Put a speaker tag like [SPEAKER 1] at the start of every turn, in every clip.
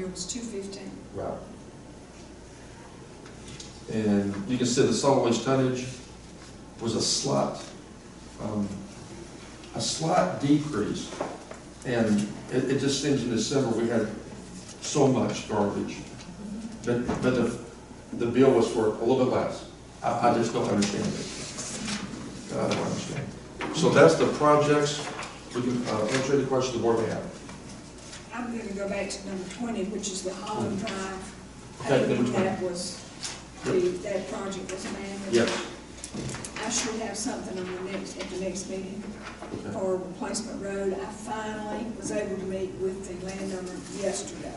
[SPEAKER 1] was two fifteen.
[SPEAKER 2] Right. And you can see the solid waste tonnage was a slight, um, a slight decrease. And it, it just seems in December, we had so much garbage. But, but the, the bill was for a little bit less. I, I just don't understand it. I don't understand. So that's the projects, we can, uh, answer any questions the board may have.
[SPEAKER 1] I'm gonna go back to number twenty, which is the Holland Drive. I
[SPEAKER 2] Okay, Hmm.
[SPEAKER 1] think
[SPEAKER 2] number 20.
[SPEAKER 1] That was, the, that project was managed.
[SPEAKER 2] Yes.
[SPEAKER 1] I should have something on the next, at the next meeting
[SPEAKER 2] Okay.
[SPEAKER 1] for replacement road. I finally was able to meet with the landowner yesterday.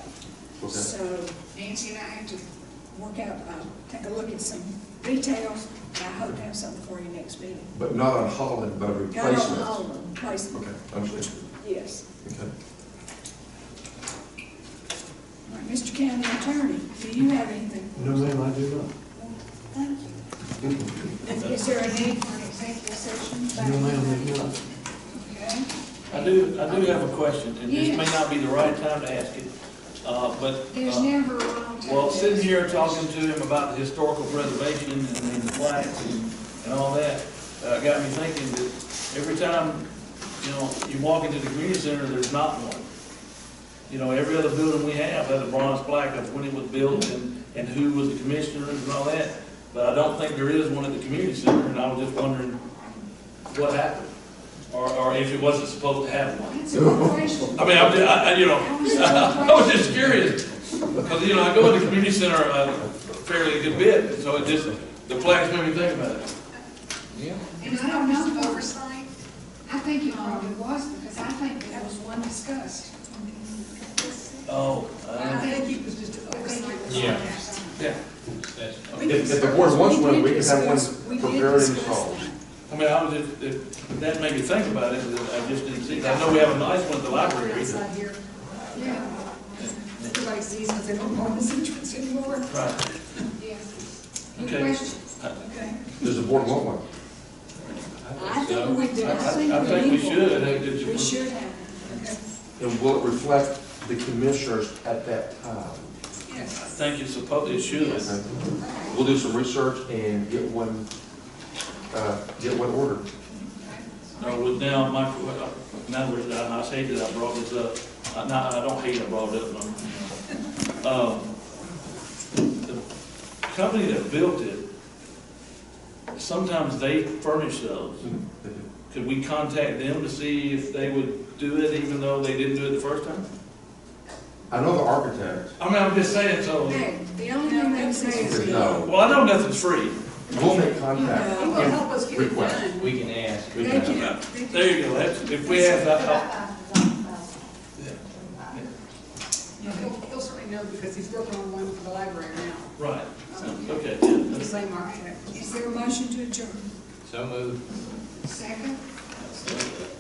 [SPEAKER 2] Okay.
[SPEAKER 1] So Nancy and I have to work out, uh, take a look at some details. I hope to have something for you next meeting.
[SPEAKER 2] But not on Holland, but a
[SPEAKER 1] Got it on
[SPEAKER 2] replacement.
[SPEAKER 1] Holland, replacement,
[SPEAKER 2] Okay, understood.
[SPEAKER 1] yes.
[SPEAKER 2] Okay.
[SPEAKER 1] All right, Mr. County Attorney, do you have anything?
[SPEAKER 3] No, ma'am, I do not.
[SPEAKER 1] Thank you. Is there a need for an executive session?
[SPEAKER 3] No, ma'am, I do not.
[SPEAKER 1] Okay.
[SPEAKER 4] I do, I do have a question, and this may
[SPEAKER 1] Yes.
[SPEAKER 4] not be the right time to ask it, uh, but,
[SPEAKER 1] There's
[SPEAKER 4] uh,
[SPEAKER 1] never a wrong time.
[SPEAKER 4] well, sitting here talking to him about the historical preservation and and the plaques and, and all that, uh, got me thinking that every time, you know, you walk into the community center, there's not one. You know, every other building we have has a bronze plaque of when it was built and, and who was the commissioner and all that, but I don't think there is one at the community center, and I was just wondering what happened, or, or if it wasn't supposed to have one.
[SPEAKER 1] That's a good question.
[SPEAKER 4] I mean, I'm, ju- I, I, you know, I was just curious, because, you know, I go in the community center uh, fairly a good bit, so it just, the flags made me think about it.
[SPEAKER 1] And I don't know if oversight, I think it probably was, because I think that was one discussed.
[SPEAKER 4] Oh,
[SPEAKER 1] I
[SPEAKER 4] uh,
[SPEAKER 1] think it was just an oversight.
[SPEAKER 4] yeah,
[SPEAKER 1] We
[SPEAKER 2] If- if the
[SPEAKER 1] did-
[SPEAKER 2] board wants one, we
[SPEAKER 1] did
[SPEAKER 2] can have one
[SPEAKER 1] discuss- we did
[SPEAKER 2] prepared and
[SPEAKER 1] discuss
[SPEAKER 2] installed.
[SPEAKER 1] that.
[SPEAKER 4] I mean, I was just, it- that made me think about it, and I just didn't see, it. I know we have a nice one at the library. but-
[SPEAKER 5] Outside here,
[SPEAKER 1] Yeah,
[SPEAKER 5] everybody sees us, they don't want us entrance anymore.
[SPEAKER 4] Right,
[SPEAKER 1] yeah. Good
[SPEAKER 4] Okay.
[SPEAKER 1] question,
[SPEAKER 4] I-
[SPEAKER 1] okay.
[SPEAKER 2] Does the board want one?
[SPEAKER 1] I think we did,
[SPEAKER 4] I,
[SPEAKER 1] I think we
[SPEAKER 4] I- I think we
[SPEAKER 1] need one.
[SPEAKER 4] should, I think that you-
[SPEAKER 1] We should have, okay,
[SPEAKER 2] And will it reflect the commissioners at that time?
[SPEAKER 4] I
[SPEAKER 1] yes.
[SPEAKER 4] think it's supposed, it should.
[SPEAKER 2] We'll do some research and get one, uh, get one ordered.
[SPEAKER 4] No, with now, my, in other words, I, I hate that I brought this up, I, no, I don't hate I brought it up, but, um, the company that built it, sometimes they furnish those. Could we contact them to see if they would do it even though they didn't do it the first time?
[SPEAKER 2] I know the architect,
[SPEAKER 4] I mean, I'm just saying, so,
[SPEAKER 1] Hey, the only thing they say is.
[SPEAKER 2] said no.
[SPEAKER 4] well, I know nothing's free.
[SPEAKER 2] We'll make contact.
[SPEAKER 5] It will help us get it
[SPEAKER 2] Request.
[SPEAKER 5] done.
[SPEAKER 6] We can ask.
[SPEAKER 2] We
[SPEAKER 1] Thank
[SPEAKER 2] can-
[SPEAKER 1] you.
[SPEAKER 4] There you go, that's, if we have that, uh,
[SPEAKER 5] He'll, he'll certainly know because he's working on one for the library now,
[SPEAKER 4] right, okay, yeah,
[SPEAKER 5] the same architect.
[SPEAKER 1] Is there a motion to adjourn?
[SPEAKER 6] So moved.
[SPEAKER 1] Second?
[SPEAKER 6] That's it.